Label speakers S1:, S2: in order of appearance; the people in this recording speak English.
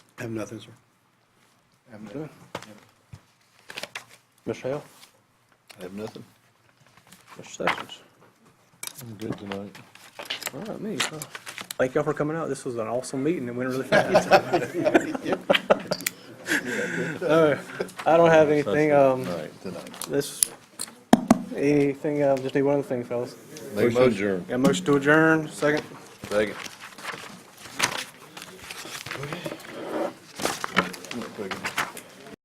S1: I have nothing, sir.
S2: Good. Mr. Hale?
S3: I have nothing.
S2: Mr. Sessions?
S3: I'm good tonight.
S2: All right, me. huh? Thank y'all for coming out. This was an awesome meeting. It went really fast. All right. I don't have anything, um,
S3: Tonight, tonight.
S2: this, anything, uh, just need one other thing, fellas.
S3: Make motion.
S2: Got a motion to adjourn, second?
S3: Second. I'm gonna take it.